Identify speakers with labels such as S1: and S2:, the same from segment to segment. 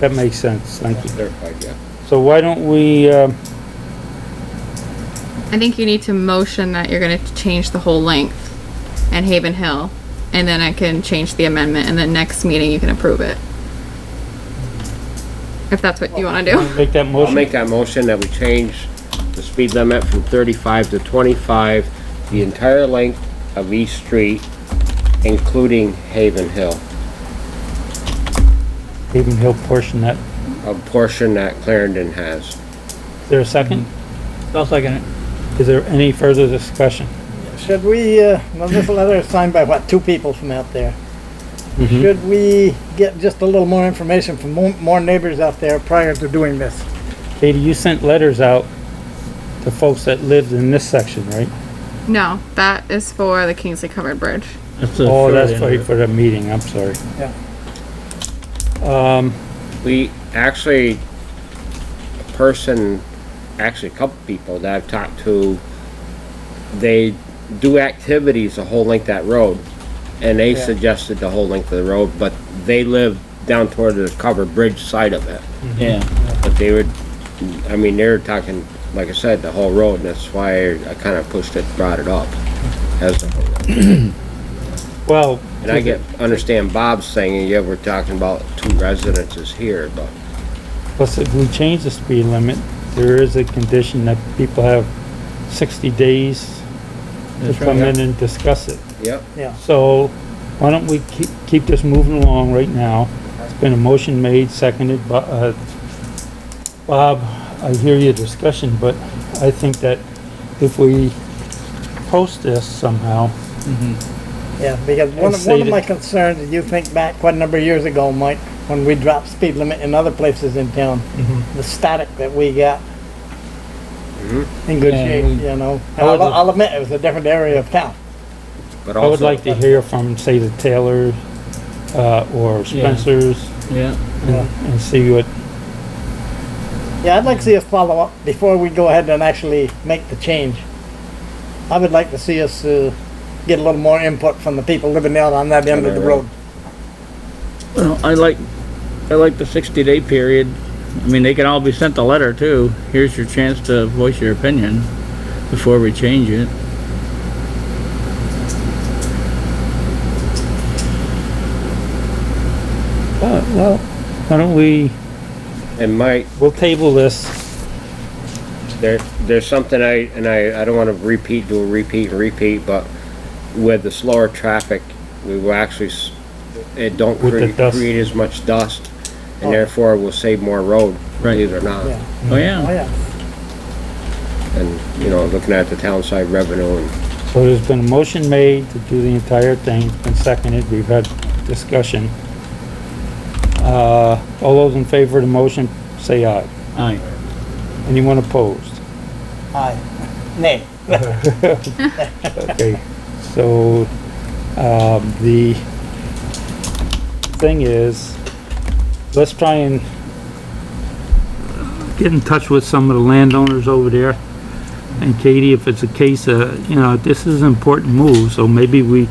S1: That makes sense, thank you.
S2: Clarified, yeah.
S1: So why don't we, um,
S3: I think you need to motion that you're gonna change the whole length and Haven Hill, and then I can change the amendment, and then next meeting you can approve it. If that's what you wanna do.
S1: make that
S2: I'll
S1: motion?
S2: make that motion that we change the speed limit from thirty-five to twenty-five, the entire length of East Street, including Haven Hill,
S1: Haven Hill portion that,
S2: a portion that Clarendon has.
S1: is there a second?
S4: I'll second it.
S1: Is there any further discussion?
S4: Should we, uh, well, this letter is signed by what, two people from out there?
S5: Mm-hmm.
S4: Should we get just a little more information from mo- more neighbors out there prior to doing this?
S1: Katie, you sent letters out to folks that lived in this section, right?
S3: No, that is for the Kingsley Covered Bridge.
S1: Oh, that's for, for the meeting, I'm sorry.
S4: Yeah.
S1: Um,
S2: We actually, a person, actually a couple people that I've talked to, they do activities the whole length of that road. And they
S4: Yeah.
S2: suggested the whole length of the road, but they live down toward the covered bridge side of it.
S5: Yeah,
S2: But they would, I mean, they were talking, like I said, the whole road, and that's why I kinda pushed it, brought it up. As, the whole road.
S1: well,
S2: and I get, understand Bob's thing, and yeah, we're talking about two residences here, but
S1: plus if we change the speed limit, there is a condition that people have sixty days to
S5: That's
S1: come
S5: right.
S1: in and discuss it.
S2: Yep,
S4: Yeah,
S1: So why don't we keep, keep this moving along right now? It's been a motion made, seconded, but, uh, Bob, I hear your discussion, but I think that if we post this somehow,
S5: Mm-hmm.
S4: yeah, because one
S1: Let's
S4: of, one of
S1: see
S4: my
S1: the-
S4: concerns, if you think back quite a number of years ago, Mike, when we dropped speed limit in other places in town,
S5: Mm-hmm.
S4: the static that we got in good
S5: Yeah,
S4: shape,
S5: we-
S4: you know?
S1: I
S4: And I'll,
S1: would-
S4: I'll admit, it was a different area of town.
S2: but
S1: I
S2: also.
S1: would like to hear from, say, the Taylor, uh, or Spencer's
S5: yeah.
S1: and, and see what,
S4: Yeah, I'd like to see us follow up before we go ahead and actually make the change. I would like to see us, uh, get a little more input from the people living out on that end of the road.
S5: Well, I like, I like the sixty day period. I mean, they can all be sent a letter too. Here's your chance to voice your opinion before we change it.
S1: uh, well, why don't we,
S2: And Mike,
S1: we'll table this.
S2: there, there's something I, and I, I don't wanna repeat, do a repeat and repeat, but with the slower traffic, we will actually, s- it don't
S1: With the
S2: create,
S1: dust.
S2: create as much dust,
S4: Oh.
S2: and therefore we will save more road,
S5: Right.
S2: believe it or not.
S4: Yeah,
S5: Oh,
S4: oh
S5: yeah.
S4: yeah.
S2: And, you know, looking at the town side revenue and
S1: So there's been a motion made to do the entire thing, it's been seconded, we've had discussion. Uh, all those in favor of the motion, say aye.
S5: Aye.
S1: Anyone opposed?
S4: Aye. Nay.
S1: Okay, so, um, the thing is, let's try and get in touch with some of the landowners over there. And Katie, if it's a case, uh, you know, this is an important move, so maybe we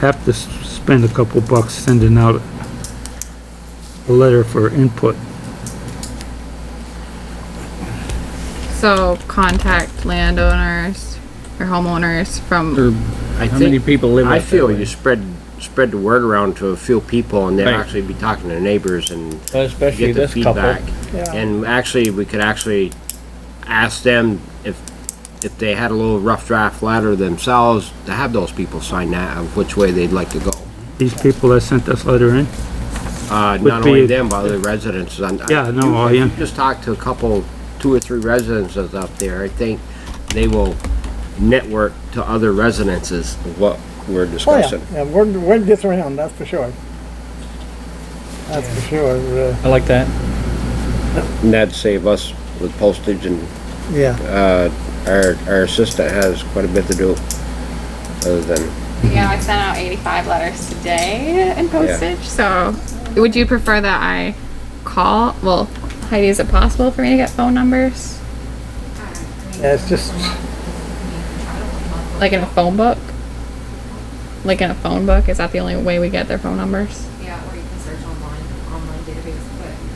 S1: have to s- spend a couple bucks sending out a letter for input.
S3: So contact landowners or homeowners from,
S5: Or
S2: I
S5: How many
S2: think,
S5: people live out
S2: I
S5: that
S2: feel
S5: way?
S2: you spread, spread the word around to a few people and they'll
S5: Right.
S2: actually be talking to neighbors and
S5: Well, Especially
S2: get the
S5: this couple.
S2: feedback.
S4: Yeah.
S2: And actually, we could actually ask them if, if they had a little rough draft letter themselves, to have those people sign that of which way they'd like to go.
S1: These people that sent this letter in,
S2: Uh,
S1: Would
S2: not
S1: be
S2: only
S1: a-
S2: them, but other residents. And I-
S1: Yeah, no,
S2: you-
S1: I
S2: if you
S1: am-
S2: Just talk to a couple, two or three residences up there, I think they will network to other residences of what we're
S4: Oh yeah,
S2: discussing.
S4: yeah, we're, we're this round, that's for sure. That's for sure, uh,
S5: I like that.
S2: And that'd save us with postage and
S4: yeah.
S2: uh, our, our assistant has quite a bit to do, other than,
S3: yeah, I sent out eighty-five letters today in postage, so would you prefer that I call? Well, Heidi, is it possible for me to get phone numbers?
S4: Yeah, it's just,
S3: Like in a phone book? Like in a phone book? Is that the only way we get their phone numbers?